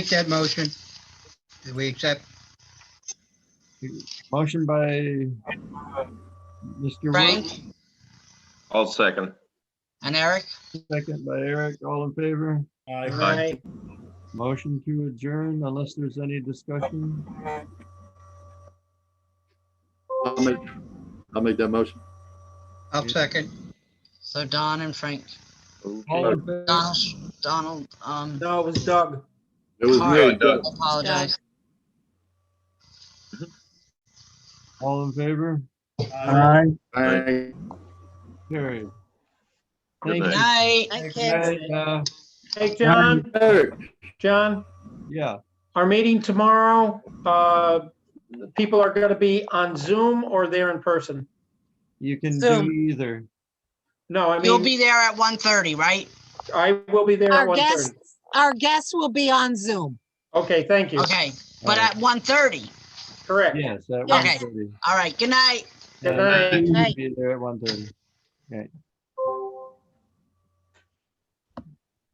make that motion. Do we accept? Motion by Mr. Frank Woods, I'll second. and Eric? second by Eric, all in favor. Aye. Motion to adjourn unless there's any discussion. I'll make, I'll make that motion. I'll second. So Don and Frank, All in favor? Donald, Donald, um, No, it was Doug. It was All right, me. Doug. apologize. All in favor? Uh, Aye. Carried. Good Thank night. you. Night. Hey, uh, Hey, John, Eric. John, Yeah, our meeting tomorrow, uh, people are going to be on Zoom or there in person? you can do Zoom. either. No, I You'll be mean, there at 1:30, right? I will be there at Our 1:30. guests, our guests will be on Zoom. Okay, thank you. Okay, but All right. at 1:30. Correct. Uh, Yes, at Yeah. one thirty. All right, good night. Good night. You Night. can be there at one thirty.